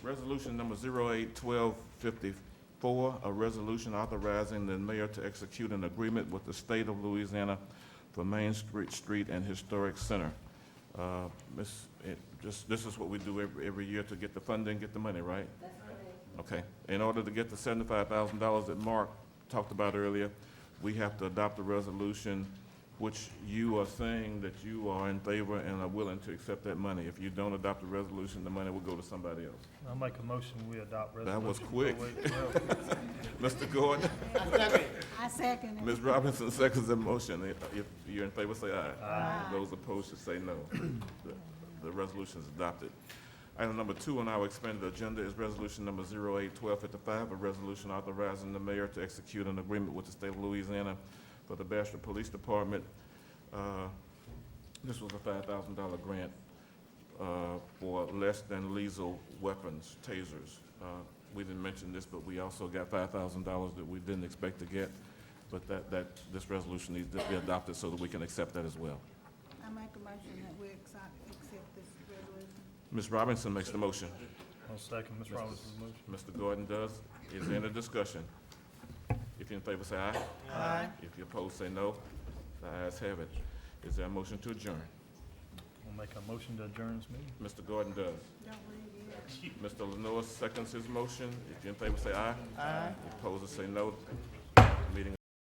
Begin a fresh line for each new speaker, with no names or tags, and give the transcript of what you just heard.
Resolution number 081254, a resolution authorizing the mayor to execute an agreement with the state of Louisiana for Main Street Street and Historic Center. Uh, Miss, it, just, this is what we do every, every year to get the funding, get the money, right? That's correct. Okay. In order to get the seventy-five thousand dollars that Mark talked about earlier, we have to adopt a resolution which you are saying that you are in favor and are willing to accept that money. If you don't adopt the resolution, the money will go to somebody else.
I'll make a motion, we adopt
That
resolution.
was quick.
0812.
Mr. Gordon,
I second it.
Ms. Robinson seconds the motion. If you're in favor, say aye.
Aye.
Those opposed should say no. The- The resolution is adopted. Item number two on our expanded agenda is resolution number 081255, a resolution authorizing the mayor to execute an agreement with the state of Louisiana for the Bastrop Police Department. Uh, This was a $5,000 grant uh, for less than lethal weapons, tasers. Uh, We didn't mention this, but we also got $5,000 that we didn't expect to get, but that, that, this resolution needs to be adopted so that we can accept that as well.
I make a motion that we accept, accept this resolution.
Ms. Robinson makes the motion.
I'll second Ms. Robinson's motion.
Mr. Gordon does. Is there any discussion? If you're in favor, say aye.
Aye.
If you oppose, say no. The ayes have it. Is there a motion to adjourn?
We'll make a motion to adjourn this meeting.
Mr. Gordon does.
Don't leave yet.
Mr. Lenore seconds his motion. If you're in favor, say aye. Aye. Opposed, say no.